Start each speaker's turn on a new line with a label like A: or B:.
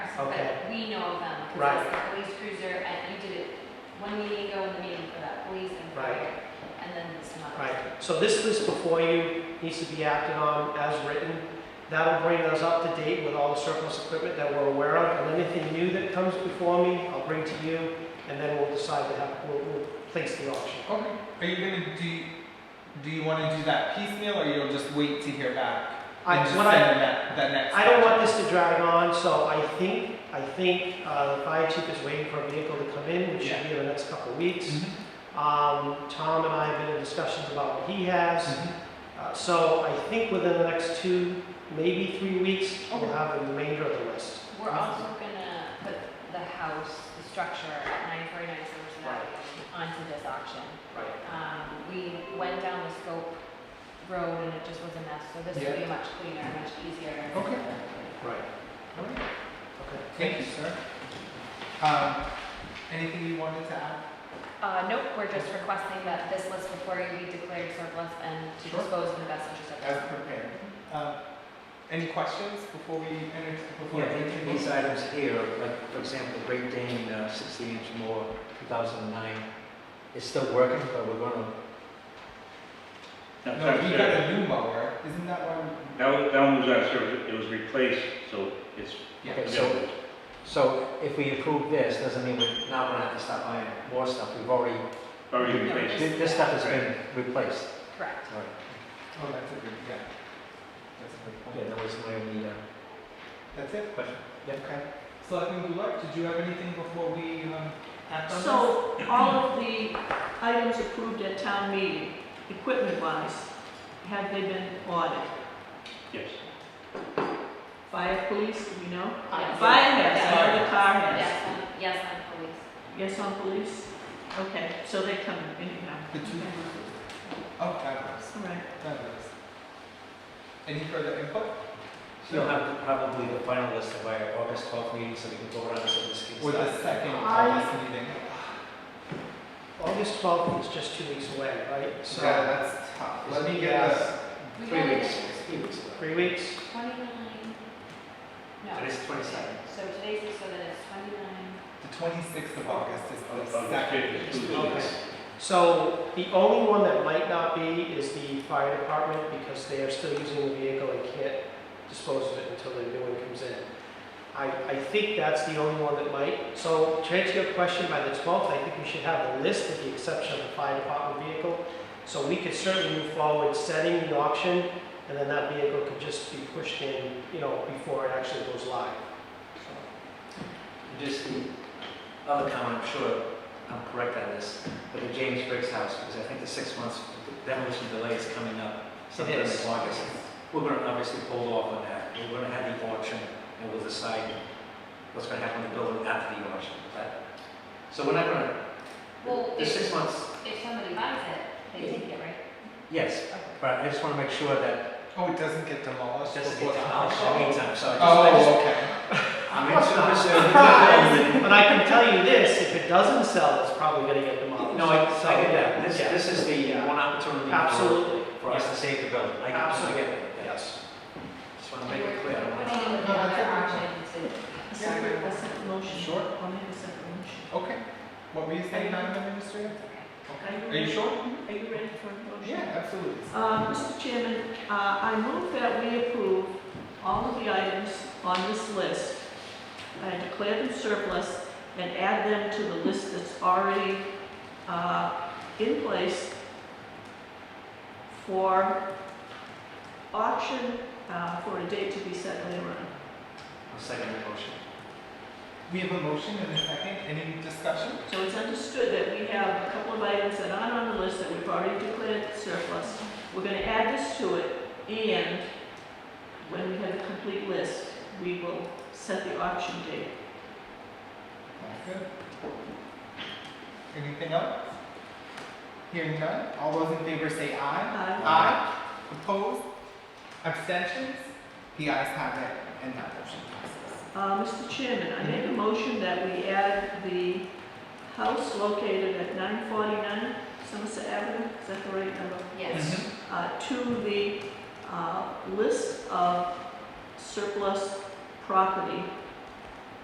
A: Okay.
B: but we know of them. 'cause
A: Right.
B: it's the Police cruiser, and you did it one meeting ago in the meeting for that police and
A: Right.
B: fire, and then some others.
A: Right, so this list before you needs to be acted on as written. That'll bring us up to date with all the surplus equipment that we're aware of, and anything new that comes before me, I'll bring to you, and then we'll decide to have, we'll, we'll place the auction.
C: Okay. Are you gonna do? Do you want to do that piecemeal, or you'll just wait to hear back
A: I,
C: and just
A: what
C: send
A: I,
C: them that, that next?
A: I don't want this to drag on, so I think, I think, uh, the fire chief is waiting for a vehicle to come in, which should be in the next couple of weeks.
C: Mhm,
A: Um, Tom and I have been in discussions about what he has.
C: mhm.
A: Uh, So I think within the next two, maybe three weeks, we'll
C: Okay.
A: have the remainder of the list.
B: We're also gonna put the house, the structure at nine forty-nine Somerset
A: Right.
B: Avenue onto this auction.
A: Right.
B: Um, we went down the scope road and it just was a mess, so this will be much cleaner, much easier.
C: Okay.
A: Right.
C: All right.
A: Okay.
C: Thank you, sir. Um, anything you wanted to add?
B: Uh, nope, we're just requesting that this list before you be declared surplus and to
C: Sure.
B: dispose in the best interest of
C: As
B: the town.
C: prepared. Um, any questions before we enter? Before
D: Yeah,
C: we
D: and these
C: introduce?
D: items here, like, for example, Great Dane, uh, 60 inch more, 2009, it's still working, but we're gonna,
C: No,
E: No,
C: we got
E: that
C: a new mower. Isn't that one?
E: was, that one was out of service, it was replaced, so it's.
C: Yeah.
D: Okay, so- so if we approve this, doesn't mean we're not gonna have to stop buying more stuff, we've already,
E: Already
C: No,
E: replaced.
D: thi- this stuff has been replaced.
B: Correct.
D: All right.
C: Oh, that's a good, yeah. That's a good point.
D: Okay, that was my only uh,
C: That's it?
D: question. Yeah.
C: Okay. Selectman Goulart, did you have anything before we um, act on this?
F: So all of the items approved at town meeting, equipment-wise, have they been ordered?
E: Yes.
F: Fire, police, do we know?
B: Yes.
F: Fire has, I know
B: Yes.
F: the car has.
B: Yes, on- yes, on police.
F: Yes, on police? Okay, so they come anyhow.
C: The two.
F: Okay.
C: Oh, fabulous,
F: All right.
C: fabulous. Any further input?
D: So you'll have probably the final list by our August 12th meeting, so we can go around and see this
C: Or the second
A: I-
C: August meeting?
A: August 12th is just two weeks away, right?
C: Yeah,
A: So
C: that's tough. Let me get
A: Yes.
C: the,
B: We
D: Three
B: got it
D: weeks, three weeks.
A: three weeks,
B: at Twenty-nine. No.
D: Today's 22nd.
B: So today's, so that it's twenty-nine.
C: the twenty-sixth of August is the
E: August
C: second.
E: 5th is two weeks.
A: So the only one that might not be is the fire department because they are still using the vehicle and can't dispose of it until the new one comes in. I, I think that's the only one that might. So to answer your question, by the 12th, I think we should have a list with the exception of the fire department vehicle. So we could certainly move forward setting the auction and then that vehicle could just be pushed in, you know, before it actually goes live.
D: Just the other comment, I'm sure I'm correct on this, but the James Briggs house, because I think the six months demolition delay is coming up sometime in
A: It is.
D: August. We're gonna obviously hold off on that. We're gonna have the auction and we'll decide what's gonna happen to the building after the auction. But- So we're not gonna,
B: Well,
D: the
B: if,
D: six months,
B: if somebody buys it, they take it, right?
D: yes, but I just wanna make sure that
C: Oh, it doesn't get demolished
D: it doesn't
C: before
D: get
C: the
D: demolished in the meantime, so I just, I just,
C: Oh, okay.
D: I'm in service of the building.
A: But I can tell you this, if it doesn't sell, it's probably gonna get demolished.
D: No, I,
A: So,
D: I get that. This,
A: yeah.
D: this is the uh, one opportunity. for-
A: Absolutely,
D: for us to save the building. I
A: Absolutely.
D: I get that.
A: yes.
D: Just want to make it clear. I don't
B: We're
D: wanna-
B: putting in
C: No,
B: another
C: that's okay.
B: auction to.
F: A second, a second motion.
C: Sure.
F: I'll make a second motion.
C: Okay. What were you saying, Madam Administrator?
F: Are
C: Are you sure?
F: Are you ready for a motion?
C: Yeah, absolutely.
F: Uh, Mr. Chairman, uh, I move that we approve all of the items on this list and declare them surplus and add them to the list that's already uh, in place uh, for auction uh, for a date to be set later on.
D: I'll second the motion.
C: We have a motion and a second. Any discussion?
F: So it's understood that we have a couple of items that aren't on the list that we've already declared surplus. We're gonna add this to it, and when we have a complete list, we will set the auction date.
C: That's good. Anything else? Hearing none, all those in favor say aye.
F: Aye.
C: Aye. Opposed? Abstentions? The ayes have it, and that motion passes.
F: Uh, Mr. Chairman, I make a motion that we add the house located at nine forty-nine Somerset Avenue, is that the right number?
B: Yes.
F: Uh, to the, uh, list of surplus property